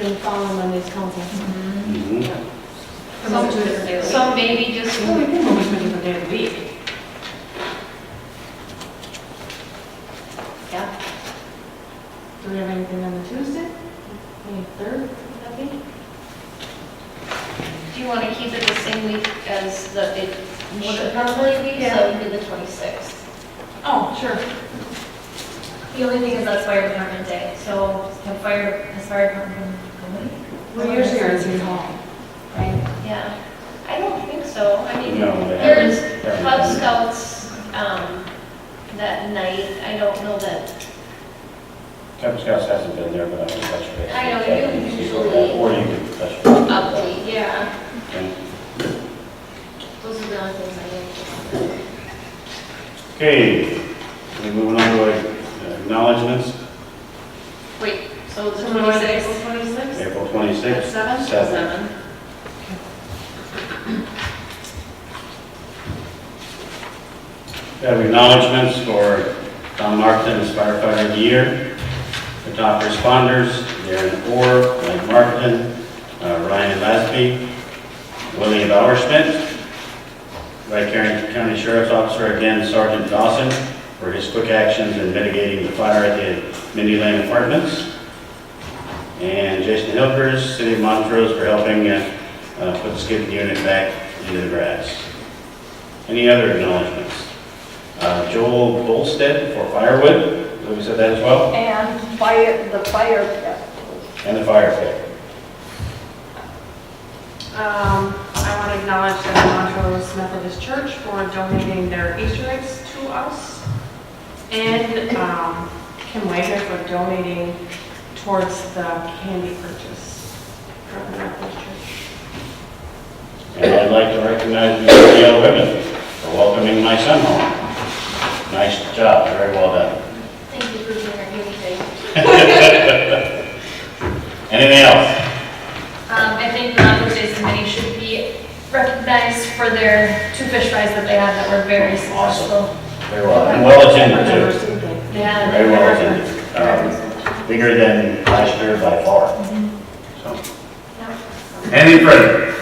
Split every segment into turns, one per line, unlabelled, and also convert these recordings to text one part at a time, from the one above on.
in the following Monday's council.
Mhm.
Some some maybe just,
Well, Oh, we can move it to a different day of the week.
yeah.
Do we have anything on the Tuesday?
Twenty-third, I think.
Do you want to keep it the same week as the, it
Sure.
would normally be, so it would be the 26th?
Oh, sure.
The only thing is that's fire department day, so the fire, the fire department
We usually are at City Hall.
Right, yeah. I don't think so. I mean,
No, they
there's
haven't.
Cub Scouts um, that night. I don't know that,
Cub Scouts hasn't been there, but I can touch base.
I know, you
Yeah, can see
usually-
that, Or you can touch base.
update, yeah.
Okay.
Those are the only things I know.
Okay, we're moving on to uh, acknowledgements,
Wait, so the
Twenty-six,
26th?
twenty-six.
April
At
26th.
seven?
Seven. We Have acknowledgements for Tom Markton as firefighter of the year, the top responders, Darren Orr, Mike Markton, uh, Ryan Lasby, Willie Bauerschmidt, Vicarious County Sheriff's Officer, again Sergeant Dawson, for his quick actions in mitigating the fire at the Mindy Lane Apartments, and Jason Hilgers, City of Montrose, for helping uh, uh, put the skid unit back into the grass. Any other acknowledgements? Uh, Joel Bolstead for firewood, we said that as well,
And fire, the fire festival.
and the fire pit.
Um, I want to acknowledge that the Montrose Methodist Church for donating their Easter eggs to us. And, um, Kim Wager for donating towards the candy purchase from the Methodist Church.
And I'd like to recognize the Yale women for welcoming my son home. Nice job, very well done.
Thank you for being here, giving me.
Anything else?
Um, I think the Montrose Day Committee should be recognized for their two fish fries that they had that were very successful.
Very well. And well attended too,
Yeah.
very well attended. Um, Bigger than last year by far. So. Any further?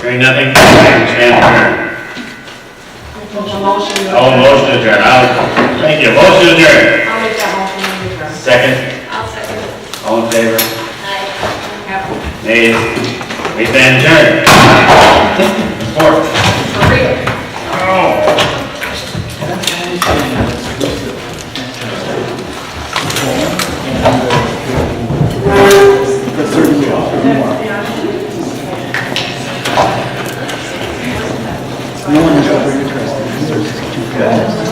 Hearing nothing, stand adjourned.
Make a motion.
Oh, motion adjourned, I'll, thank you, motion adjourned.
I'll make that motion. Wager.
Second,
I'll second.
all in favor?
Aye.
Yep.
Nay, we stand adjourned. Four. Oh.
No one is over interested.